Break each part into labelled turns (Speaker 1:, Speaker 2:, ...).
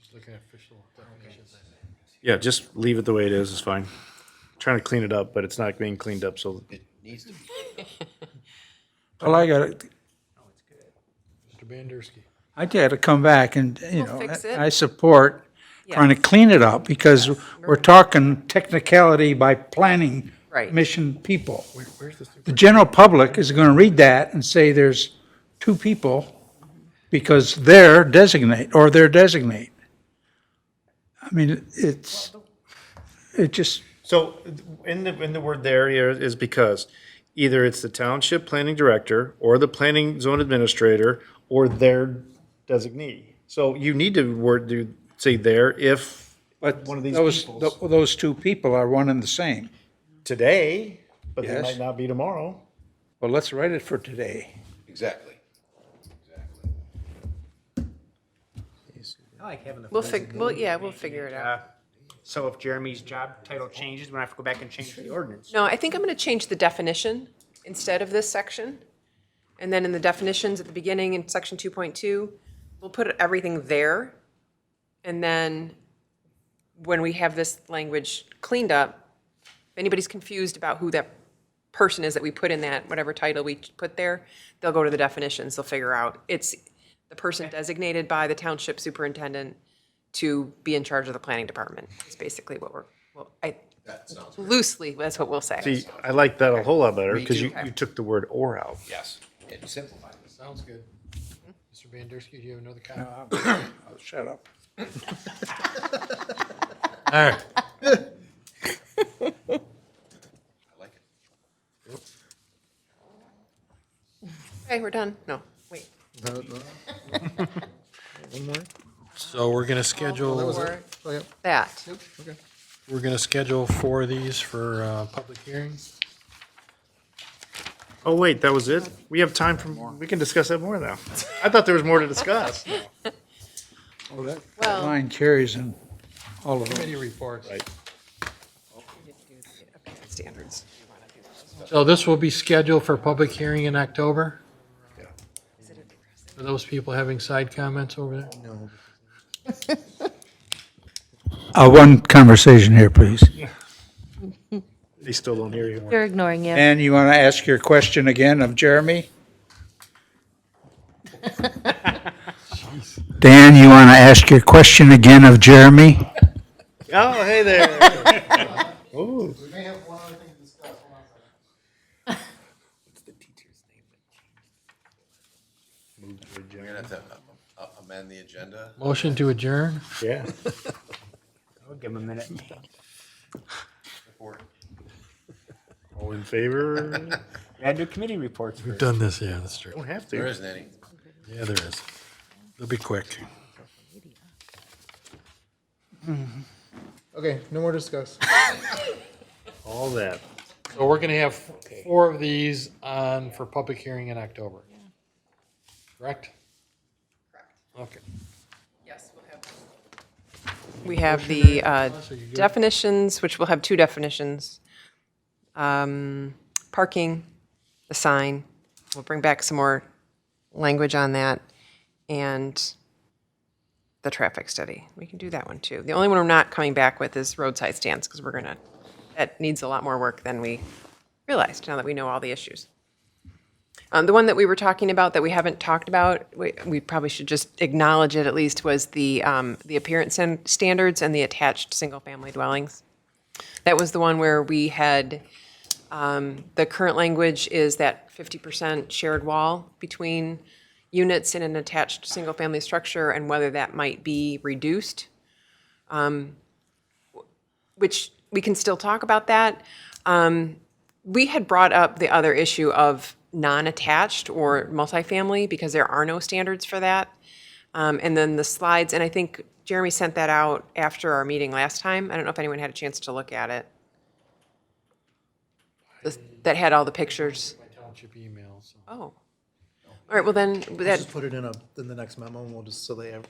Speaker 1: Just looking at official definitions.
Speaker 2: Yeah, just leave it the way it is, it's fine. Trying to clean it up, but it's not being cleaned up, so
Speaker 3: It needs to be.
Speaker 4: Well, I gotta,
Speaker 1: Mr. Bandersky.
Speaker 4: I gotta come back and, you know,
Speaker 5: fix it.
Speaker 4: I support trying to clean it up because we're talking technicality by planning
Speaker 5: Right.
Speaker 4: mission people.
Speaker 1: Where's this?
Speaker 4: The general public is gonna read that and say there's two people because they're designate, or they're designate. I mean, it's, it just,
Speaker 2: So in the, in the word there here is because either it's the township planning director or the planning zone administrator or their designee. So you need to word, do, say there if
Speaker 4: but
Speaker 2: One of these
Speaker 4: those,
Speaker 2: peoples.
Speaker 4: tho- those two people are one and the same.
Speaker 2: today, but they
Speaker 4: Yes.
Speaker 2: might not be tomorrow.
Speaker 4: Well, let's write it for today.
Speaker 3: Exactly.
Speaker 6: I like having the.
Speaker 5: We'll fig, well, yeah, we'll figure it out.
Speaker 6: So if Jeremy's job title changes, when I have to go back and change the ordinance.
Speaker 5: No, I think I'm going to change the definition instead of this section. And then in the definitions at the beginning in section 2.2, we'll put everything there. And then when we have this language cleaned up, if anybody's confused about who that person is that we put in that, whatever title we put there, they'll go to the definitions, they'll figure out. It's the person designated by the township superintendent to be in charge of the planning department, is basically what we're, well, I,
Speaker 3: That sounds,
Speaker 5: loosely, that's what we'll say.
Speaker 2: See, I like that a whole lot better because you,
Speaker 3: too.
Speaker 2: you took the word or out.
Speaker 3: yes, it simplifies.
Speaker 1: Sounds good. Mr. Bandersky, do you have another comment?
Speaker 4: Oh, Shut up.
Speaker 1: All right.
Speaker 3: I like it.
Speaker 5: Okay, we're done. No, wait.
Speaker 1: So we're gonna schedule,
Speaker 5: Or that.
Speaker 1: we're gonna schedule four of these for, uh, public hearings.
Speaker 2: Oh, wait, that was it? We have time for, we can discuss that more now. I thought there was more to discuss.
Speaker 4: Oh, that
Speaker 5: Well-
Speaker 4: line carries in all of them.
Speaker 1: Committee reports.
Speaker 2: Right.
Speaker 5: Standards. You wanna do those?
Speaker 1: So this will be scheduled for public hearing in October?
Speaker 2: Yeah.
Speaker 1: Are those people having side comments over there? No.
Speaker 4: Uh, one conversation here, please.
Speaker 2: They still don't hear you.
Speaker 7: They're ignoring you.
Speaker 4: And you want to ask your question again of Jeremy? Dan, you want to ask your question again of Jeremy?
Speaker 2: Oh, hey there.
Speaker 3: We're gonna have to uh, uh, amend the agenda.
Speaker 1: Motion to adjourn?
Speaker 2: Yeah.
Speaker 6: I'll give him a minute.
Speaker 3: Report.
Speaker 2: All in favor?
Speaker 6: Add to committee reports first.
Speaker 1: Done this, yeah, that's true.
Speaker 2: Don't have
Speaker 3: There
Speaker 2: to.
Speaker 3: isn't any.
Speaker 1: Yeah, there is. It'll be quick.
Speaker 8: Okay, no more discuss.
Speaker 2: All that.
Speaker 1: So we're gonna have four of these on for public hearing in October. Correct? Correct. Okay.
Speaker 5: Yes, we'll have. We have the uh,
Speaker 1: Melissa, you good?
Speaker 5: definitions, which we'll have two definitions. Um, Parking, the sign, we'll bring back some more language on that, and the traffic study. We can do that one, too. The only one we're not coming back with is roadside stands, because we're gonna, that needs a lot more work than we realized, now that we know all the issues. Um, the one that we were talking about that we haven't talked about, we, we probably should just acknowledge it at least, was the, um, the appearance and standards and the attached single-family dwellings. That was the one where we had, um, the current language is that fifty percent shared wall between units in an attached single-family structure and whether that might be reduced. Um, Which, we can still talk about that, we had brought up the other issue of non-attached or multifamily because there are no standards for that. Um, and then the slides, and I think Jeremy sent that out after our meeting last time. I don't know if anyone had a chance to look at it. The- That had all the pictures.
Speaker 1: Township email, so.
Speaker 5: Oh. All right, well then, that,
Speaker 8: Just put it in a, in the next memo and we'll just, so they have,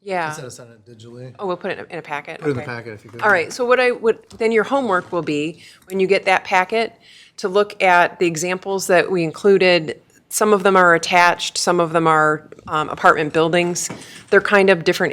Speaker 8: instead
Speaker 5: yeah.
Speaker 8: of sending it digitally,
Speaker 5: Oh, we'll put it in a- in a packet?
Speaker 8: put it in the
Speaker 5: Okay.
Speaker 8: packet if you could.
Speaker 5: All right, so what I would, then your homework will be, when you get that packet, to look at the examples that we included. Some of them are attached, some of them are um, apartment buildings. They're kind of different